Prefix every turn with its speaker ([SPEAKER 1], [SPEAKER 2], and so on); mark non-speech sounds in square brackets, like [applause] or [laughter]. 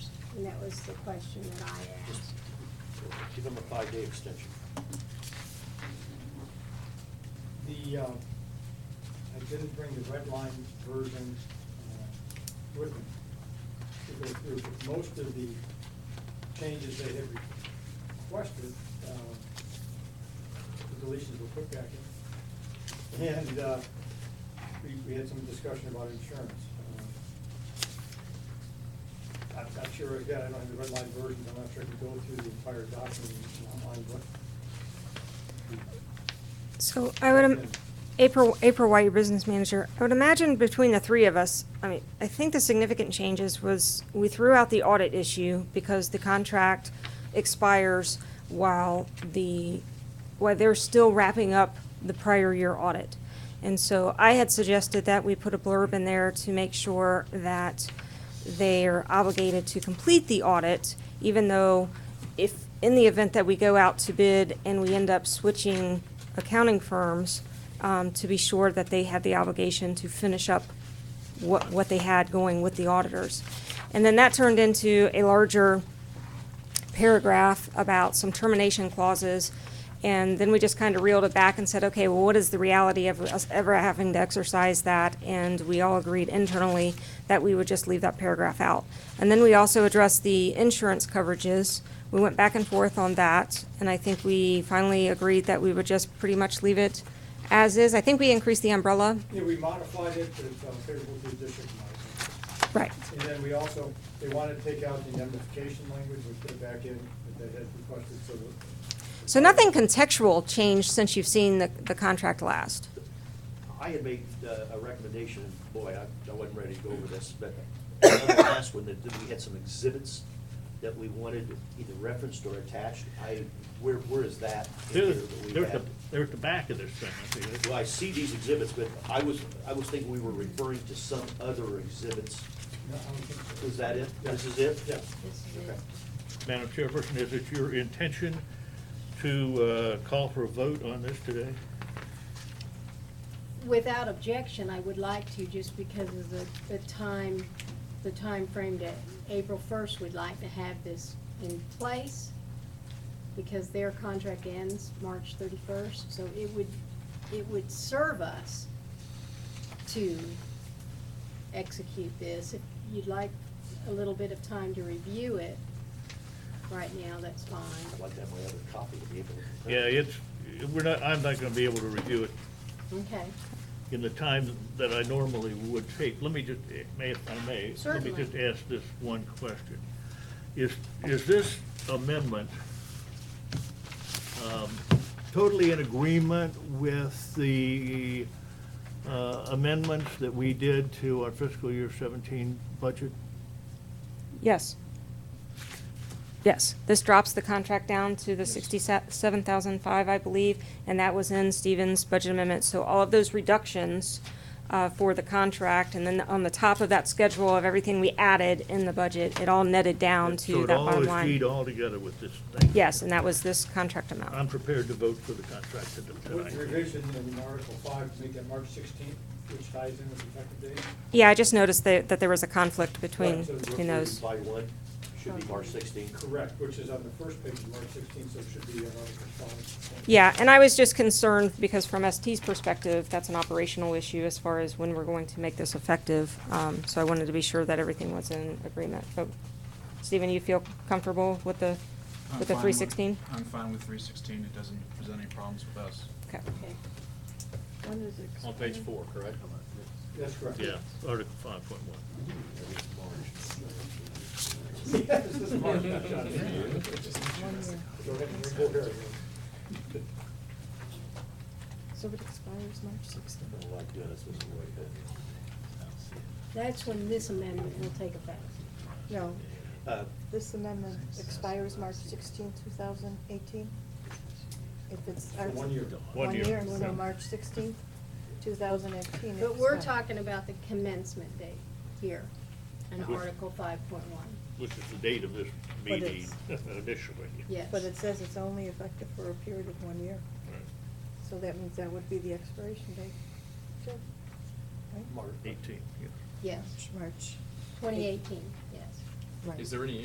[SPEAKER 1] And that was the question that I
[SPEAKER 2] Just
[SPEAKER 1] asked.
[SPEAKER 2] Give them a five-day extension.
[SPEAKER 3] The, uh, I didn't bring the red line version uh, with me to go through, but most of the changes they had requested, uh, the deletions were put back in. And uh, we we had some discussion about insurance. Uh, I'm not sure, again, I don't have the red line version, I'm not sure I can go through the entire document online, but
[SPEAKER 4] So I would, im- April, April White, your business manager, I would imagine between the three of us, I mean, I think the significant changes was we threw out the audit issue because the contract expires while the, while they're still wrapping up the prior year audit. And so I had suggested that we put a blurb in there to make sure that they're obligated to complete the audit, even though if, in the event that we go out to bid and we end up switching accounting firms, um, to be sure that they had the obligation to finish up what, what they had going with the auditors. And then that turned into a larger paragraph about some termination clauses. And then we just kind of reeled it back and said, okay, well, what is the reality of us ever having to exercise that? And we all agreed internally that we would just leave that paragraph out. And then we also addressed the insurance coverages. We went back and forth on that, and I think we finally agreed that we would just pretty much leave it as is. I think we increased the umbrella.
[SPEAKER 3] Yeah, we modified it to uh, favorable to the district. modification.
[SPEAKER 4] Right.
[SPEAKER 3] And then we also, they wanted to take out the indemnification language, we put it back in, that they had requested, so. the-
[SPEAKER 4] So nothing contextual changed since you've seen the, the contract last.
[SPEAKER 2] I had made uh, a recommendation, and boy, I, I wasn't ready to go over this, but on the last one, that we had some exhibits that we wanted either referenced or attached. I, where, where is that? in
[SPEAKER 5] They're,
[SPEAKER 2] here that we
[SPEAKER 5] they're at the,
[SPEAKER 2] had?
[SPEAKER 5] they're at the back of this thing, I think.
[SPEAKER 2] Well, I see these exhibits, but I was, I was thinking we were referring to some other exhibits.
[SPEAKER 3] No, I don't think so.
[SPEAKER 2] Is that it? This is it?
[SPEAKER 3] Yeah.
[SPEAKER 2] Okay.
[SPEAKER 5] Madam Chairperson, is it your intention to uh, call for a vote on this today?
[SPEAKER 1] Without objection, I would like to, just because of the, the time, the time frame that April first, we'd like to have this in place, because their contract ends March thirty-first, so it would, it would serve us to execute this. If you'd like a little bit of time to review it, right now, that's fine.
[SPEAKER 2] I'd like to have my other copy to be able to.
[SPEAKER 5] Yeah, it's, we're not, I'm not gonna be able to review it
[SPEAKER 1] Okay,
[SPEAKER 5] in the time that I normally would take. Let me just, may, if I may, let me
[SPEAKER 1] Certainly.
[SPEAKER 5] just ask this one question. Is, is this amendment um, totally in agreement with the uh, amendments that we did to our fiscal year 17 budget?
[SPEAKER 4] Yes. Yes, this drops the contract down to the sixty-seven thousand five, I believe, and that was in Stevens' budget amendment. So all of those reductions uh, for the contract, and then on the top of that schedule of everything we added in the budget, it all netted down to that
[SPEAKER 5] So
[SPEAKER 4] bottom
[SPEAKER 5] it all is keyed
[SPEAKER 4] line.
[SPEAKER 5] all together with this thing?
[SPEAKER 4] Yes, and that was this contract
[SPEAKER 5] I'm
[SPEAKER 4] amount.
[SPEAKER 5] prepared to vote for the contract to-
[SPEAKER 3] With
[SPEAKER 5] tonight.
[SPEAKER 3] revision in Article five, to make that March sixteenth, which ties in with the effective date.
[SPEAKER 4] Yeah, I just noticed that, that there was a conflict between,
[SPEAKER 3] Right, so
[SPEAKER 4] between those.
[SPEAKER 2] By one, should be March 16.
[SPEAKER 3] Correct, which is on the first page of March sixteenth, so it should be on Article five.
[SPEAKER 4] Yeah, and I was just concerned because from ST's perspective, that's an operational issue as far as when we're going to make this effective. Um, so I wanted to be sure that everything was in agreement. But Stephen, you feel comfortable with the,
[SPEAKER 6] I'm
[SPEAKER 4] with the
[SPEAKER 6] fine
[SPEAKER 4] three sixteen?
[SPEAKER 6] I'm fine with three sixteen, it doesn't present any problems with us.
[SPEAKER 4] Okay.
[SPEAKER 1] okay. When does it
[SPEAKER 7] On page four, correct?
[SPEAKER 3] That's correct.
[SPEAKER 5] Yeah, Article 5.1.
[SPEAKER 3] Yes, this is March, not John. Go ahead and go here.
[SPEAKER 8] So it expires March sixteenth.
[SPEAKER 2] I don't like doing this this way,
[SPEAKER 1] That's when this amendment will take effect.
[SPEAKER 8] No,
[SPEAKER 2] but, uh,
[SPEAKER 8] this amendment expires March sixteenth, two thousand eighteen. If it's.
[SPEAKER 3] For one year.
[SPEAKER 5] One
[SPEAKER 8] One
[SPEAKER 5] year.
[SPEAKER 8] year, so
[SPEAKER 5] Yeah.
[SPEAKER 8] March sixteenth, two thousand eighteen.
[SPEAKER 1] But we're talking about the commencement date here in
[SPEAKER 5] Which-
[SPEAKER 1] Article five point one.
[SPEAKER 5] Which is the date of this
[SPEAKER 8] But
[SPEAKER 5] meeting [laughs] initially.
[SPEAKER 1] Yes.
[SPEAKER 8] But it says it's only effective for a period of one year, so that means that would be the expiration date. Sure. Right?
[SPEAKER 3] March.
[SPEAKER 5] Eighteen, yeah.
[SPEAKER 1] Yes,
[SPEAKER 8] March.
[SPEAKER 1] twenty eighteen, yes.
[SPEAKER 8] Right.
[SPEAKER 7] Is there any